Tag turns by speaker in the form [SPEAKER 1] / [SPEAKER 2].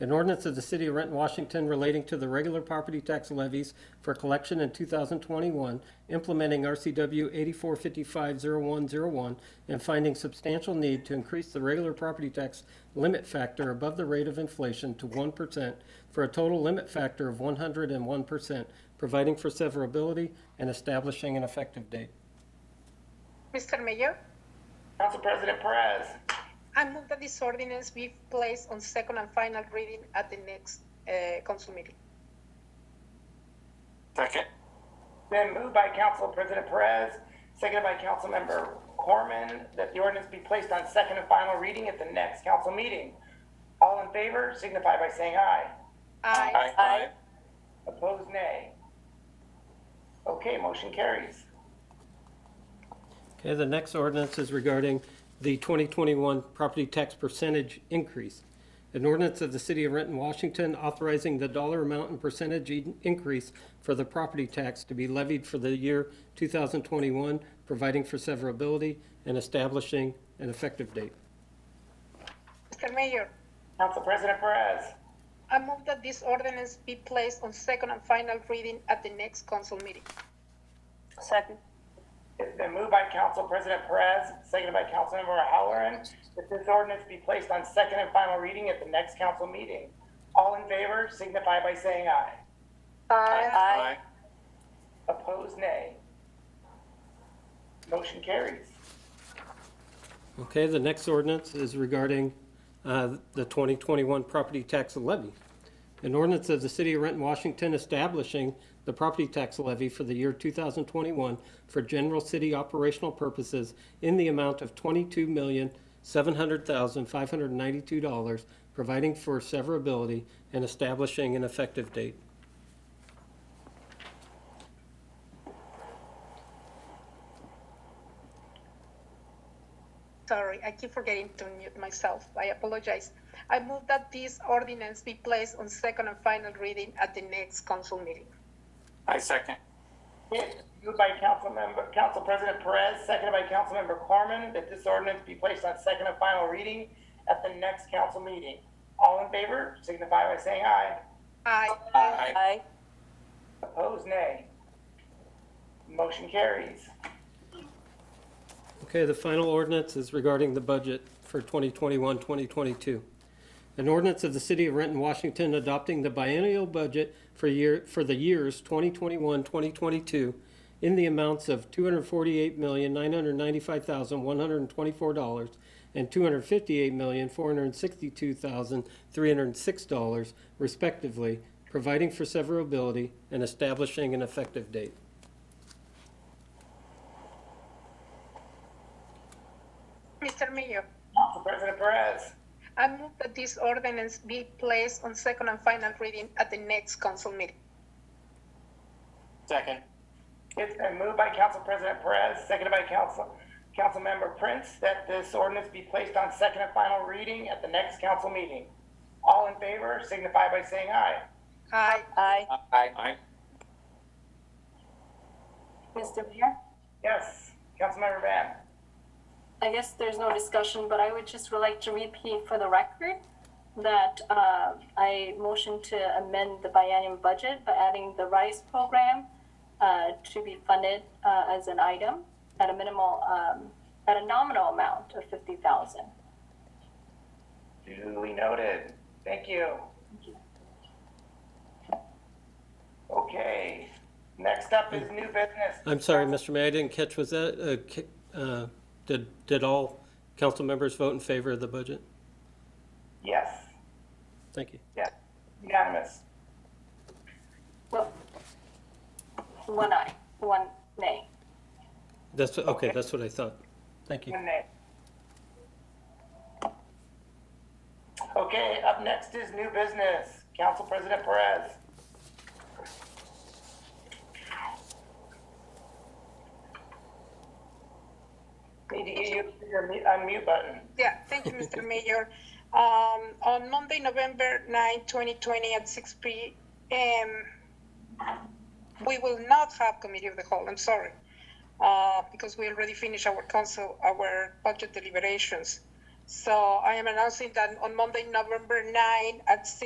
[SPEAKER 1] An ordinance of the City of Renton, Washington relating to the regular property tax levies for collection in 2021, implementing RCW 84550101, and finding substantial need to increase the regular property tax limit factor above the rate of inflation to 1% for a total limit factor of 101%, providing for severability and establishing an effective date.
[SPEAKER 2] Mr. Mayor,
[SPEAKER 3] Council President Perez.
[SPEAKER 2] I move that this ordinance be placed on second and final reading at the next uh, council meeting.
[SPEAKER 3] Second. Then moved by Council President Perez, seconded by Councilmember Corman, that the ordinance be placed on second and final reading at the next council meeting. All in favor signify by saying aye.
[SPEAKER 2] Aye.
[SPEAKER 3] Opposed, nay. Okay, motion carries.
[SPEAKER 1] Okay, the next ordinance is regarding the 2021 property tax percentage increase. An ordinance of the City of Renton, Washington authorizing the dollar amount and percentage in- increase for the property tax to be levied for the year 2021, providing for severability and establishing an effective date.
[SPEAKER 2] Mr. Mayor,
[SPEAKER 3] Council President Perez.
[SPEAKER 2] I move that this ordinance be placed on second and final reading at the next council meeting.
[SPEAKER 4] Second.
[SPEAKER 3] It's been moved by Council President Perez, seconded by Councilmember Halloran, that this ordinance be placed on second and final reading at the next council meeting. All in favor signify by saying aye.
[SPEAKER 4] Aye.
[SPEAKER 3] Opposed, nay. Motion carries.
[SPEAKER 1] Okay, the next ordinance is regarding uh, the 2021 property tax levy. An ordinance of the City of Renton, Washington establishing the property tax levy for the year 2021 for general city operational purposes in the amount of $22,700,592, providing for severability and establishing an effective date.
[SPEAKER 2] Sorry, I keep forgetting to mute myself. I apologize. I move that this ordinance be placed on second and final reading at the next council meeting.
[SPEAKER 5] I second.
[SPEAKER 3] Moved by Councilmember, Council President Perez, seconded by Councilmember Corman, that this ordinance be placed on second and final reading at the next council meeting. All in favor signify by saying aye.
[SPEAKER 2] Aye.
[SPEAKER 5] Aye.
[SPEAKER 4] Aye.
[SPEAKER 3] Opposed, nay. Motion carries.
[SPEAKER 1] Okay, the final ordinance is regarding the budget for 2021, 2022. An ordinance of the City of Renton, Washington adopting the biennial budget for year, for the years 2021, 2022 in the amounts of $248,995,124 and $258,462,306 respectively, providing for severability and establishing an effective date.
[SPEAKER 2] Mr. Mayor,
[SPEAKER 3] Council President Perez.
[SPEAKER 2] I move that this ordinance be placed on second and final reading at the next council meeting.
[SPEAKER 5] Second.
[SPEAKER 3] It's been moved by Council President Perez, seconded by Council, Councilmember Prince, that this ordinance be placed on second and final reading at the next council meeting. All in favor signify by saying aye.
[SPEAKER 2] Aye.
[SPEAKER 4] Aye.
[SPEAKER 5] Aye.
[SPEAKER 6] Mr. Mayor,
[SPEAKER 3] Yes, Councilmember Van.
[SPEAKER 6] I guess there's no discussion, but I would just would like to repeat for the record that uh, I motion to amend the biennium budget by adding the RISE program uh, to be funded uh, as an item at a minimal, um, at a nominal amount of 50,000.
[SPEAKER 3] Duly noted. Thank you. Okay, next up is new business.
[SPEAKER 1] I'm sorry, Mr. Mayor, I didn't catch, was that, uh, ca- uh, did, did all council members vote in favor of the budget?
[SPEAKER 3] Yes,
[SPEAKER 1] Thank you.
[SPEAKER 3] yes, unanimous.
[SPEAKER 6] Well, one aye, one nay.
[SPEAKER 1] That's, okay, that's what I thought. Thank you.
[SPEAKER 3] One nay. Okay, up next is new business. Council President Perez. Need to get you to your mute- unmute button.
[SPEAKER 2] Yeah, thank you, Mr. Mayor. Um, on Monday, November 9, 2020, at 6 p.m., we will not have committee of the whole, I'm sorry, uh, because we already finished our council, our budget deliberations. So I am announcing that on Monday, November 9, at 6